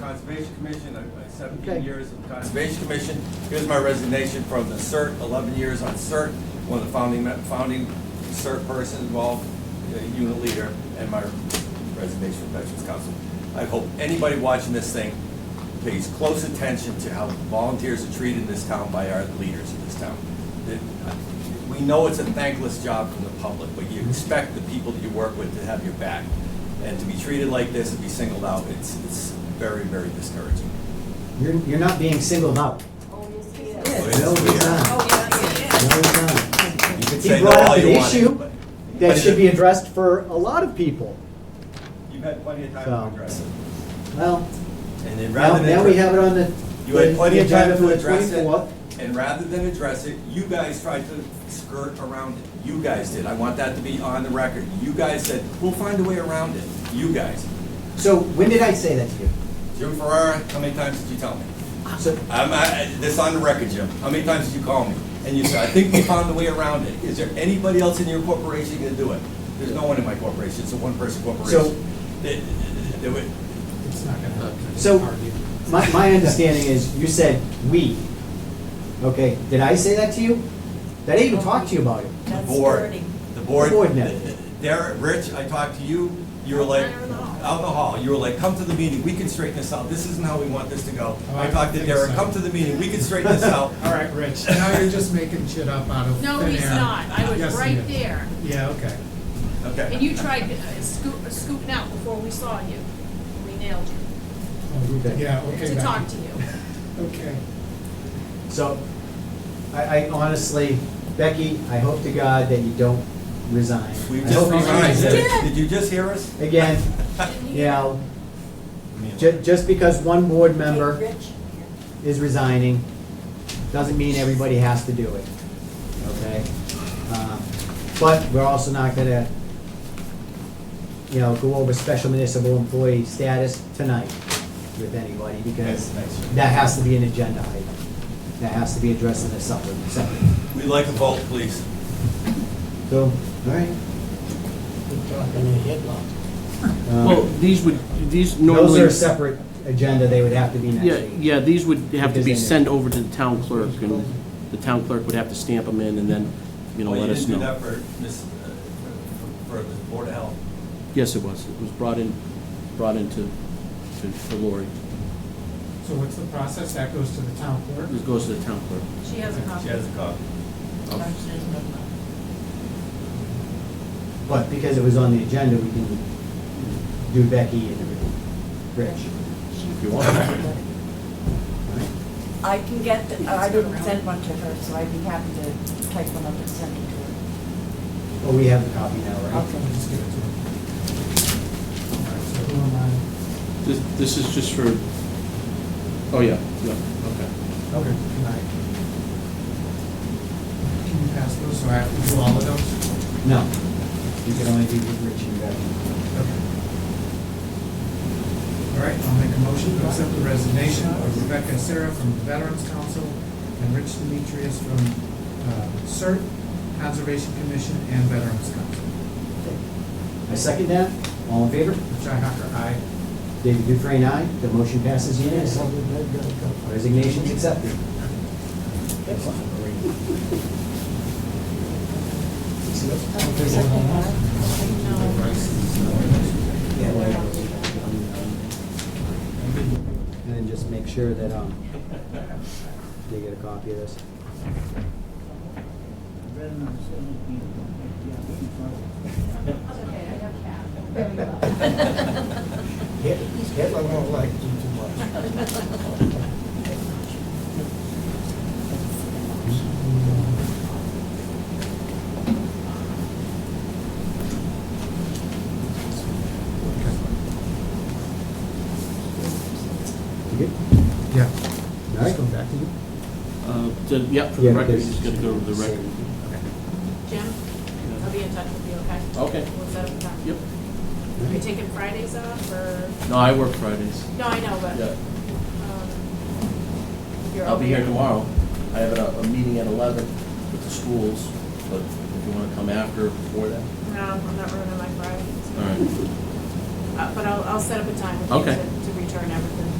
Conservation Commission, I- I Okay. seventeen years of Conservation Commission. Here's my resignation from the CERT, eleven years on CERT, one of the founding, me- founding CERT person involved, uh, unit leader, and my resignation from Veterans Council. I hope anybody watching this thing pays close attention to how volunteers are treated in this town by our leaders in this town. That, uh, We know it's a thankless job from the public, but you expect the people that you work with to have your back. And to be treated like this and be singled out, it's, it's very, very discouraging. You're, you're not being singled out. Oh, yes, he is. Well, it's No, he's weird. not. No, he's not. You can He say no brought up all an you want. issue but- That should be addressed for a lot of people. You've had plenty of time So. to address it. Well, And then now, rather than. now we have it on the. You had plenty of time agenda for to the address it, 24th. and rather than address it, you guys tried to skirt around it. You guys did. I want that to be on the record. You guys said, we'll find a way around it. You guys. So when did I say that to you? Jim Ferrara, how many times did you tell me? So, I'm, I, this on the record, Jim. How many times did you call me? And you said, I think we found a way around it. Is there anybody else in your corporation gonna do it? There's no one in my corporation. It's a one-person corporation. They- they would- It's not gonna happen. So- my, my understanding is you said "we." Okay, did I say that to you? That I even talked to you about it. The That's board, dirty. the board. The board met. Derek, Rich, I talked to you, you were like, Out in the hall. out in the hall, you were like, come to the meeting, we can straighten this out, this isn't how we want this to go. Oh, I I talked to think Derek, so. come to the meeting, we can straighten this out. All right, Rich, now you're just making shit up out of thin air. No, he's not. I Yes, was he right is. there. Yeah, okay. And Okay. you tried uh, scoop- scooping out before we saw you. We nailed you Oh, Okay. Yeah, okay. to Becky. talk to you. Okay. So, I, I honestly, Becky, I hope to God that you don't resign. We I just hope you resigned, resign. Derek. did you just hear us? Again, you know, ju- just because one board Hey, member Rich, is resigning, doesn't mean everybody has to do it, okay? Um, But we're also not gonna, you know, go over special municipal employee status tonight with anybody, because Yes, thanks. that has to be an agenda item. That has to be addressed in a separate, separate. We'd like a vote, please. So, all right. Um, Well, these would, these Those normally. are a separate agenda, they would have to be next Yeah, week. yeah, these would have to Because they- be sent over to the town clerk, and the town clerk would have to stamp them in and then, you know, Well, let us Oh, didn't do that know. for, Miss, uh, for for the Board of Health. Yes, it was. It was brought in, brought into, to, to Lori. So what's the process? That goes to the town clerk? This goes to the town clerk. She has a She copy. has a copy. But because it was on the agenda, we can do Becky and everything. Rich. If you want. I can get, the- I didn't send one to her, so I'd be happy to type one up and send it to her. Well, we have the copy now, right? I'll just give it to her. All right, so who am This, this is just for, oh, yeah, yeah, okay. I? Okay. Can I? Can you pass those? So I have to do all of those? No. You can only do Rich and Becky. Okay. All right, I'll make a motion to accept the resignation of Rebecca Sarah from the Veterans Council and Rich Demetrius from uh, CERT, Conservation Commission, and Veterans Council. I second that. All in favor? Richi Hacker, aye. David Dufresne, aye. The motion passes unanimously. Resignation's accepted. Yeah, well, And then just make sure that, um, they get a copy of this. That's okay, I have that. Hitler won't like you too much. You good? Yeah. All right. back to you. Uh, so, yeah, for Yeah, the record, because- this is gonna go to the record. Jim, I'll be in touch with you, okay? Okay. We'll set up a time. Yep. Are you taking Fridays off or, No, I work Fridays. no, I know, but, Yeah, um, you're I'll over be here tomorrow. I have a, a meeting at eleven with the schools, but if you wanna come after, or before that. No, I'm not ruining my Fridays. All right. Uh, but I'll, I'll set up a time with you Okay. to, to return everything.